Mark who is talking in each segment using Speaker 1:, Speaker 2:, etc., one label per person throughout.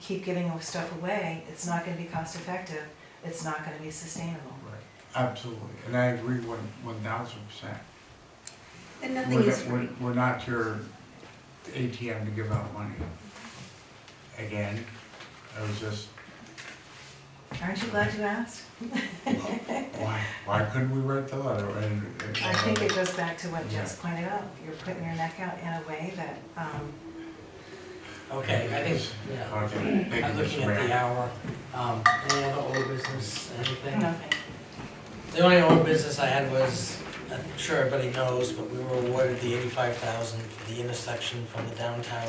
Speaker 1: keep giving stuff away, it's not gonna be cost effective, it's not gonna be sustainable.
Speaker 2: Right, absolutely, and I agree one, one thousand percent.
Speaker 3: And
Speaker 2: We're
Speaker 3: nothing
Speaker 2: not-
Speaker 3: is free.
Speaker 2: We're we're not your ATM to give out money. Again, I was just,
Speaker 1: Aren't you glad you asked?
Speaker 2: why, why couldn't we write the letter? And- and- uh,
Speaker 1: I think it goes back to what Jess pointed out, you're putting your neck out in a way that, um,
Speaker 4: Okay, I think, yeah,
Speaker 2: Okay, thank
Speaker 4: I'm
Speaker 2: you,
Speaker 4: looking
Speaker 2: Mr.
Speaker 4: at the
Speaker 2: Mayor.
Speaker 4: hour. Um, any other old business, anything?
Speaker 1: nothing.
Speaker 4: The only old business I had was, I'm sure everybody knows, but we were awarded the eighty-five thousand for the intersection from the downtown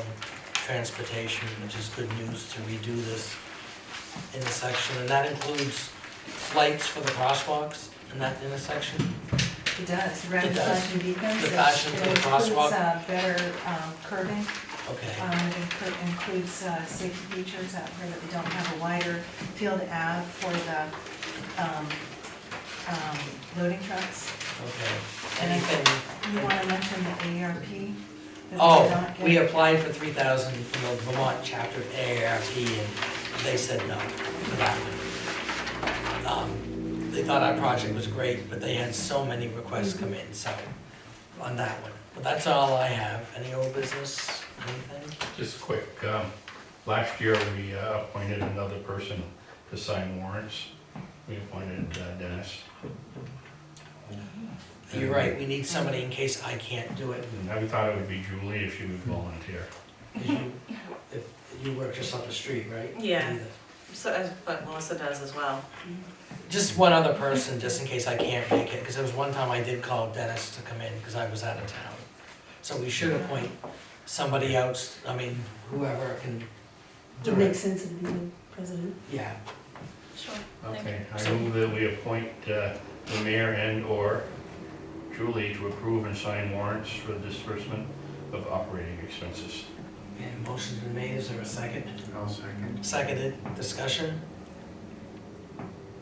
Speaker 4: transportation, which is good news to redo this intersection, and that includes lights for the crosswalks in that intersection.
Speaker 1: It does, rather
Speaker 4: It
Speaker 1: than
Speaker 4: does.
Speaker 1: flashing beacons.
Speaker 4: The
Speaker 1: it-
Speaker 4: fashion for the
Speaker 1: It
Speaker 4: crosswalk.
Speaker 1: includes, uh, better um, curving,
Speaker 4: Okay,
Speaker 1: um, it inclu- includes, uh, safety features out where that we don't have a wider field ab for the, um, um, loading trucks.
Speaker 4: okay. Anything,
Speaker 1: You wanna mention the AARP? that we did
Speaker 4: Oh,
Speaker 1: not
Speaker 4: we
Speaker 1: get?
Speaker 4: applied for three thousand from the Vermont chapter of AARP and they said no to that one. Um, They thought our project was great, but they had so many requests come in, so, on that one. But that's all I have. Any old business, anything?
Speaker 5: Just quick, um, last year we uh, appointed another person to sign warrants. We appointed uh, Dennis.
Speaker 4: You're right, we need somebody in case I can't do it.
Speaker 5: And I thought it would be Julie if she would volunteer.
Speaker 4: 'Cause you- If you work just up the street, right?
Speaker 6: Yeah. So, as- but Melissa does as well.
Speaker 4: Just one other person, just in case I can't make it, because there was one time I did call Dennis to come in, because I was out of town. So we should appoint somebody else, I mean, whoever can
Speaker 3: It
Speaker 4: do
Speaker 3: makes
Speaker 4: it.
Speaker 3: sense to be the president.
Speaker 4: Yeah,
Speaker 6: Sure.
Speaker 5: Okay, I move that we appoint uh, the mayor and/or Julie to approve and sign warrants for disbursement of operating expenses.
Speaker 4: and motion's been made, is there a second?
Speaker 2: I'll second.
Speaker 4: Seconded, discussion?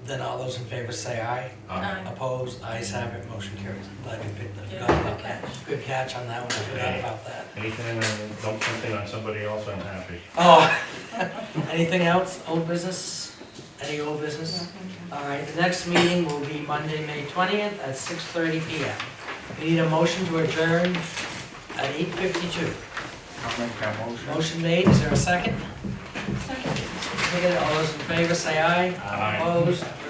Speaker 4: Then all those in favor say aye.
Speaker 5: Um,
Speaker 4: Opposed, ayes have it, motion carries. Glad you picked, I
Speaker 6: Yeah,
Speaker 4: forgot about
Speaker 6: good
Speaker 4: that. Good catch on that one, I forgot about that.
Speaker 5: Anything, I dump something on somebody else, I'm happy.
Speaker 4: Oh, anything else, old business? Any old business?
Speaker 1: Yeah, thank you.
Speaker 4: All right, the next meeting will be Monday, May 20th at 6:30 PM. We need a motion to adjourn at 8:52.
Speaker 2: I'll make that motion.
Speaker 4: Motion made, is there a second? Second. All those in favor, say aye.
Speaker 5: Aye.
Speaker 4: Opposed,